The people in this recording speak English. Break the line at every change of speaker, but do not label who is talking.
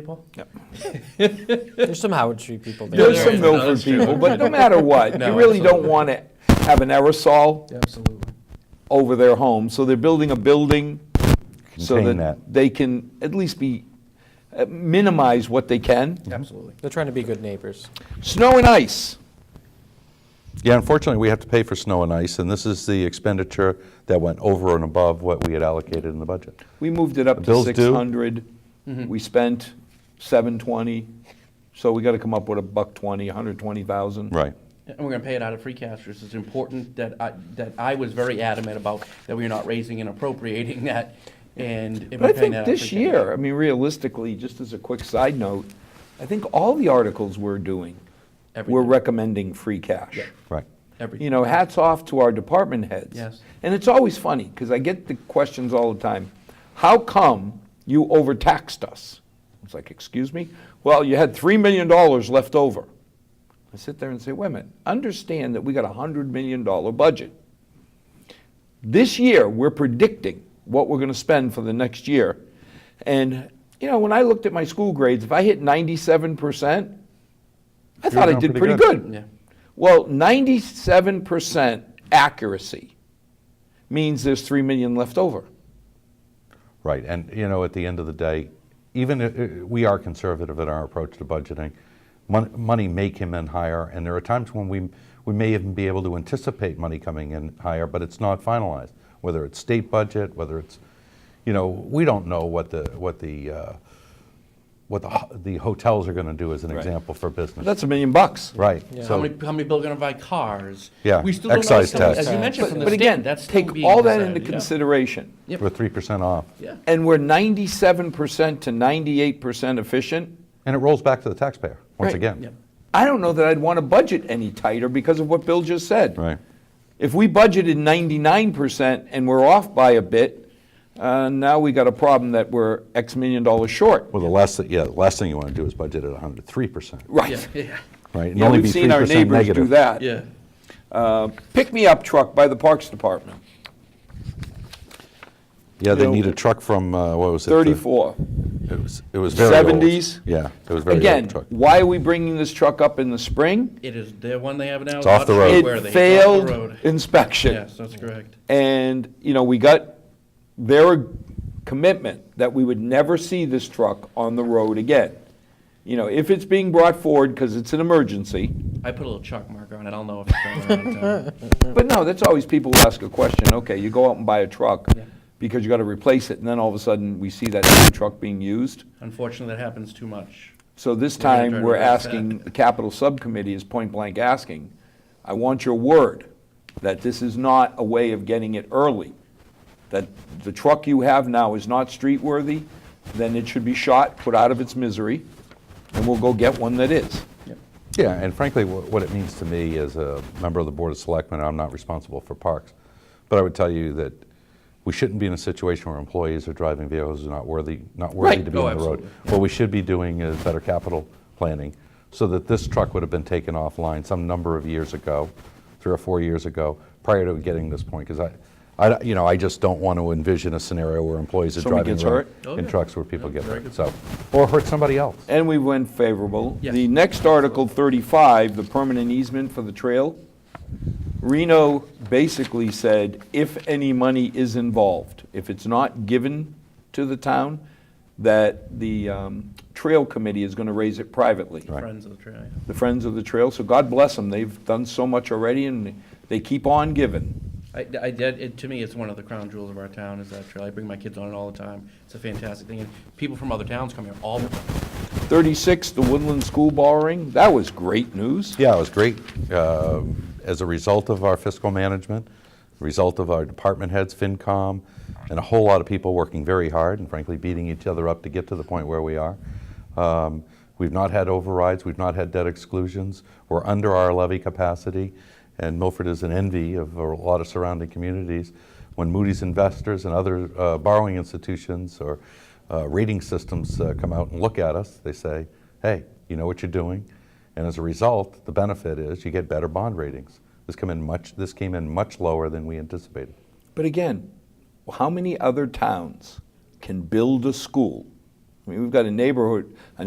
people?
There's some Howard Street people there.
There's
there
some
is.
Milford
That's true.
people, but no matter what,
No,
you really don't
absolutely.
want to have an aerosol
Absolutely.
over their home, so they're building a building so
Contain
that
that.
they can at least be, uh, minimize what they can.
Absolutely.
They're trying to be good neighbors.
Snow and ice,
Yeah, unfortunately, we have to pay for snow and ice, and this is the expenditure that went over and above what we had allocated in the budget.
we moved it up to
Bills due?
600.
Mm-hmm.
We spent 720, so we got to come up with a buck 20, 120,000.
Right.
And we're gonna pay it out of free cash, which is important that I, that I was very adamant about, that we're not raising and appropriating that, and. if we're
But I
paying
think
that out of
this
free cash-
year, I mean, realistically, just as a quick side note, I think all the articles we're doing, we're
Everything.
recommending free cash.
Right.
You
Every,
know, hats off to our department heads.
Yes.
And it's always funny, because I get the questions all the time, how come you overtaxed us? It's like, excuse me? Well, you had $3 million left over. I sit there and say, wait a minute, understand that we got a $100 million budget. This year, we're predicting what we're going to spend for the next year. And, you know, when I looked at my school grades, if I hit 97%, I thought I
doing
did pretty
pretty
good.
good.
yeah,
Well, 97% accuracy means there's 3 million left over.
Right. And, you know, at the end of the day, even i- i- we are conservative in our approach to budgeting. Mon- Money may come in higher, and there are times when we, we may even be able to anticipate money coming in higher, but it's not finalized, whether it's state budget, whether it's, you know, we don't know what the, what the, uh, what the ho- the hotels are going to do as an example for business.
That's a million bucks.
Right.
how
So
many, how many people are gonna buy cars?
Yeah,
We still don't know what's
excise
coming,
tax.
As you mentioned,
But
from
but
the
again,
state, that's still
take
being
all that into
decided, yeah.
consideration.
Yep.
we're 3% off.
Yeah,
And we're 97% to 98% efficient.
And it rolls back to the taxpayer, once
Right.
again.
yeah,
I don't know that I'd want to budget any tighter because of what Bill just said.
Right.
If we budgeted 99% and we're off by a bit, uh, now we got a problem that we're X million dollars short.
Well, the last, thi- yeah, the last thing you want to do is budget at 103%,
yeah,
Right.
yeah,
right? And
Yeah,
only
we've
be
seen our
3%
neighbors do
negative.
that.
yeah.
Uh, Pick-me-up truck by the Parks Department,
Yeah, they
you know,
need a truck from, uh, what was it? the-
34.
It was, it was very old.
70s?
Yeah, it was very
Again,
old truck.
why are we bringing this truck up in the spring?
It is the one they have now.
It's off the
not
road.
where they-
It
it's off the
failed
road.
inspection.
Yes, that's correct.
And, you know, we got their commitment that we would never see this truck on the road again. You know, if it's being brought forward because it's an emergency,
I put a little chalk marker on it, I'll know if it's going around town.
but no, that's always people who ask a question, okay, you go out and buy a truck
Yeah.
because you got to replace it, and then all of a sudden, we see that new truck being used.
Unfortunately, that happens too much.
So this
We're gonna
time,
try to
we're
address that.
asking, the capital subcommittee is point blank asking, I want your word that this is not a way of getting it early, that the truck you have now is not street worthy, then it should be shot, put out of its misery, and we'll go get one that is.
Yeah, and frankly, wh- what it means to me as a member of the Board of Selectmen, I'm not responsible for parks, but I would tell you that we shouldn't be in a situation where employees are driving vehicles who are not worthy, not worthy
Right.
to be
Oh,
on the road.
absolutely.
What we should be doing is better capital planning, so that this truck would have been taken offline some number of years ago, three or four years ago, prior to getting this point, because I, I, don't- you know, I just don't want to envision a scenario where employees are
Somebody
driving
gets
around
hurt?
Oh,
in
yeah.
trucks where people
Yeah,
get
very
hurt,
good
so, or hurt somebody else.
And we went favorable.
Yes.
The next Article 35, the permanent easement for the trail, Reno basically said, if any money is involved, if it's not given to the town, that the um, Trail Committee is going to raise it privately,
Friends of the trail. yeah.
the Friends of the Trail. So God bless them, they've done so much already, and they keep on giving.
I, I did, it, to me, it's one of the crown jewels of our town is that trail. I bring my kids on it all the time. It's a fantastic thing. And people from other towns come here all the time.
36, the Woodland School borrowing, that was great news.
Yeah, it was great. Um, As a result of our fiscal management, result of our department heads, FinCom, and a whole lot of people working very hard and frankly beating each other up to get to the point where we are. Um, We've not had overrides, we've not had debt exclusions, we're under our levy capacity, and Milford is an envy of a lot of surrounding communities. When Moody's investors and other uh, borrowing institutions or uh, rating systems uh, come out and look at us, they say, hey, you know what you're doing, and as a result, the benefit is you get better bond ratings. This come in much, this came in much lower than we anticipated.
But again, how many other towns can build a school I mean, we've got a neighborhood, a